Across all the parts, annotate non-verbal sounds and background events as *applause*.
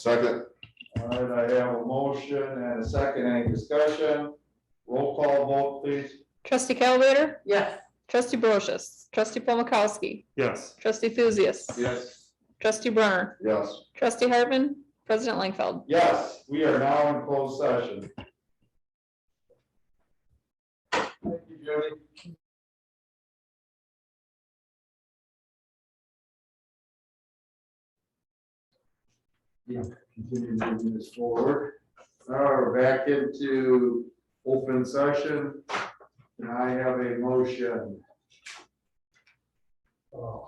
Second, All right, I have a motion and a second, any discussion? Roll call vote, please. Trustee Calvater, yes, trustee Brochus, trustee Paul Mikowski, yes, trustee Thuzius, Yes. trustee Brunner, yes, trustee Hartman, president Langfeld. Yes, we are now in closed session. Thank you, Julie. Yeah, continue moving this forward. Now we're back into open session. And I have a motion. Oh. Uh,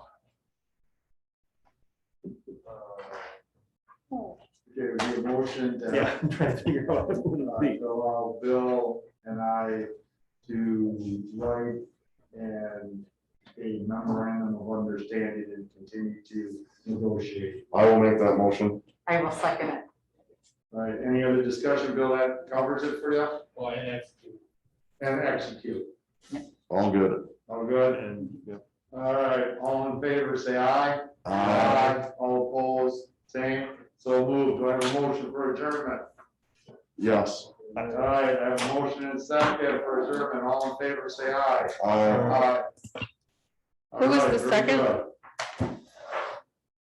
Okay, we have a motion to. yeah, I'm trying to figure out what it Uh, would be. to allow Bill and I to write and a memorandum of understanding and continue to negotiate. I will make that motion. I will second it. All Right, any other discussion, Bill, that covers it for you? Well, and that's, And execute, All good. all good? And, yeah, All right, all in favor, say aye. All opposed, same, so moved, do I have a motion for adjournment? Yes, All right, I have a motion and second for adjournment, all in favor, say aye. I, Who was the second?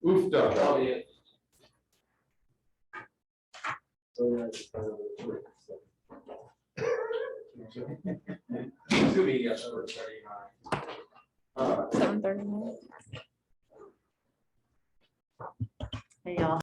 Oofda. probably it. *laughs* It's gonna be yes for thirty-nine. Uh, Seven thirty-nine. Hey, y'all.